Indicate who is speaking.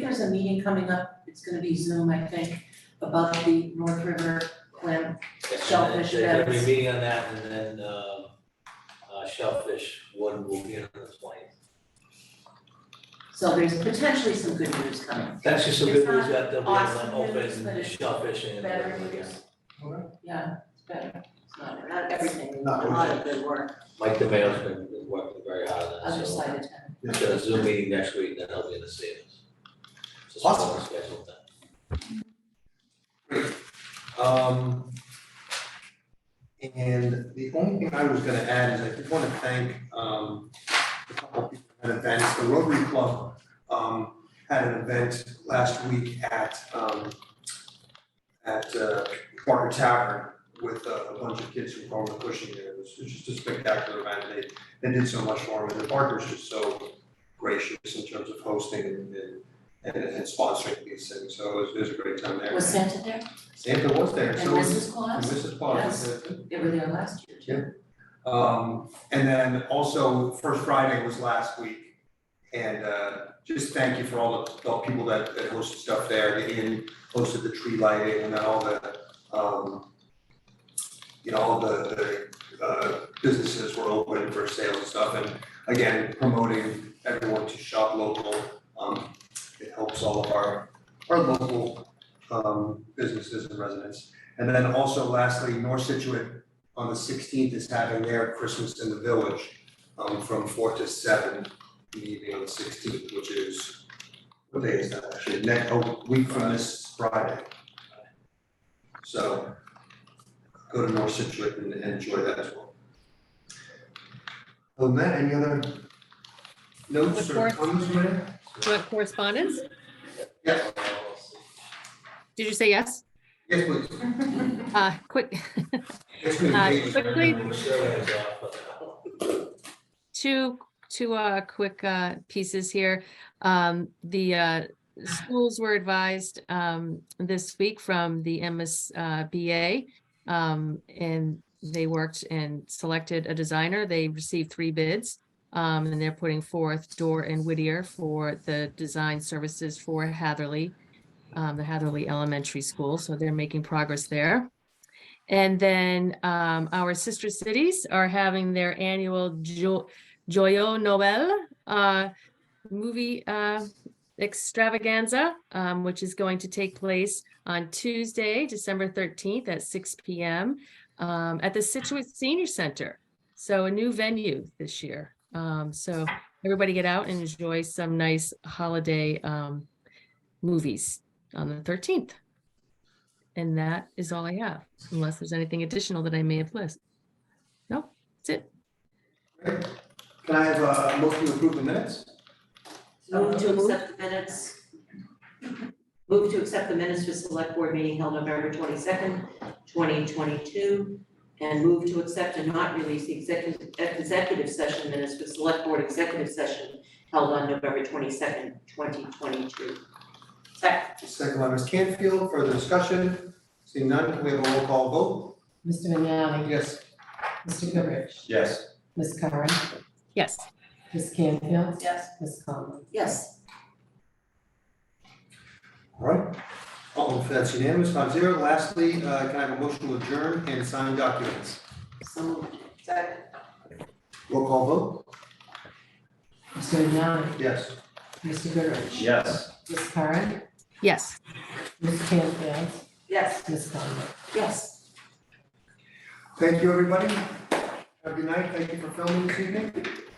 Speaker 1: a meeting coming up, it's gonna be Zoom, I think, about the North River plan. Shellfish
Speaker 2: There's gonna be a
Speaker 1: beds.
Speaker 2: meeting on that, and then, um, uh, shellfish one will be on the twentieth.
Speaker 1: So there's potentially some good news coming,
Speaker 2: That's just some
Speaker 1: It's
Speaker 2: good news
Speaker 1: not
Speaker 2: that they'll be able
Speaker 1: awesome news,
Speaker 2: to open
Speaker 1: but
Speaker 2: the
Speaker 1: it's
Speaker 2: shellfish and.
Speaker 1: better
Speaker 2: everything again.
Speaker 1: news. Yeah, it's better, it's not, not everything, a
Speaker 3: Not
Speaker 1: lot of good work,
Speaker 2: Mike DeMayo's been working very hard on
Speaker 1: other
Speaker 2: that, so
Speaker 1: side of town.
Speaker 2: we've got a Zoom meeting next week, then I'll be in the savings. Just
Speaker 3: Awesome.
Speaker 2: one scheduled then.
Speaker 3: Um, and the only thing I was gonna add is I did wanna thank, um, a couple people at events, the Rotary Club, um, had an event last week at, um, at, uh, Barker Tavern with a, a bunch of kids from Gorman Cushing there, it was it was just a spectacular event, they, they did so much for them, and the Barker's just so gracious in terms of hosting and, and, and sponsoring these things, so it was, it was a great time there.
Speaker 1: Was Santa there
Speaker 3: Santa was there,
Speaker 1: and
Speaker 3: so.
Speaker 1: Mrs.
Speaker 3: And
Speaker 1: Claus?
Speaker 3: Mrs. Potts
Speaker 1: Yes.
Speaker 3: was there too.
Speaker 1: They were there last year too.
Speaker 3: Um, and then also First Friday was last week. And, uh, just thank you for all the, all the people that, that hosted stuff there, the inn hosted the tree lighting and then all the, um, you know, all the, the, uh, businesses were open for sale and stuff and again, promoting everyone to shop local. Um, it helps all of our, our local, um, businesses and residents. And then also lastly, North Situate on the sixteenth is having their Christmas in the Village, um, from four to seven, the evening on the sixteenth, which is, what day is that actually, next, a week from this Friday. So, go to North Situate and and enjoy that as well. Well, Matt, any other notes or
Speaker 4: Reports?
Speaker 3: comments, Matt?
Speaker 4: Do you have correspondence?
Speaker 3: Yes,
Speaker 4: Did you say yes?
Speaker 3: yes, please.
Speaker 4: Uh, quick,
Speaker 3: Yes, please.
Speaker 4: Uh, quickly-
Speaker 2: The survey is off, but- uh,
Speaker 4: two, two, uh, quick, uh, pieces here. Um, the, uh, schools were advised, um, this week from the MSBA. Um, and they worked and selected a designer. They received three bids. Um, and they're putting forth Door and Whittier for the design services for Hatherley, um, the Hatherley Elementary School. So they're making progress there. And then um, our sister cities are having their annual Jo- Joyeux Noel uh, movie uh, extravaganza, um, which is going to take place on Tuesday, December 13th at 6 p.m. um, at the Situate Senior Center. So a new venue this year. Um, so everybody get out and enjoy some nice holiday um, movies on the 13th. And that is all I have, unless there's anything additional that I may have missed. No, that's it.
Speaker 3: Great. Can I have a motion to approve the minutes?
Speaker 1: Move to accept the minutes. Move to accept the minutes for select board meeting held November twenty-second, twenty twenty-two. And move to accept and not release the executive, executive session minutes for select board executive session held on November twenty-second, twenty twenty-two. Second.
Speaker 3: Second by Ms. Canfield, further discussion, seeing none, can we have a roll call
Speaker 5: Mr. Vignani,
Speaker 3: vote? Yes.
Speaker 5: Mr. Goodrich,
Speaker 3: Yes.
Speaker 5: Ms. Curran,
Speaker 4: Yes.
Speaker 5: Ms. Canfield,
Speaker 1: Yes.
Speaker 5: Ms. Conlon.
Speaker 1: Yes.
Speaker 3: All right, all in, that's unanimous, five zero, lastly, uh, can I have a motion to adjourn and sign documents?
Speaker 1: So moved. Second.
Speaker 3: Roll call vote?
Speaker 5: Mr. Vignani,
Speaker 3: Yes.
Speaker 5: Mr. Goodrich.
Speaker 3: Yes.
Speaker 5: Ms. Curran,
Speaker 4: Yes.
Speaker 5: Ms. Canfield,
Speaker 1: Yes.
Speaker 5: Ms. Conlon.
Speaker 1: Yes.
Speaker 3: Thank you, everybody, have a good night, thank you for filming this evening.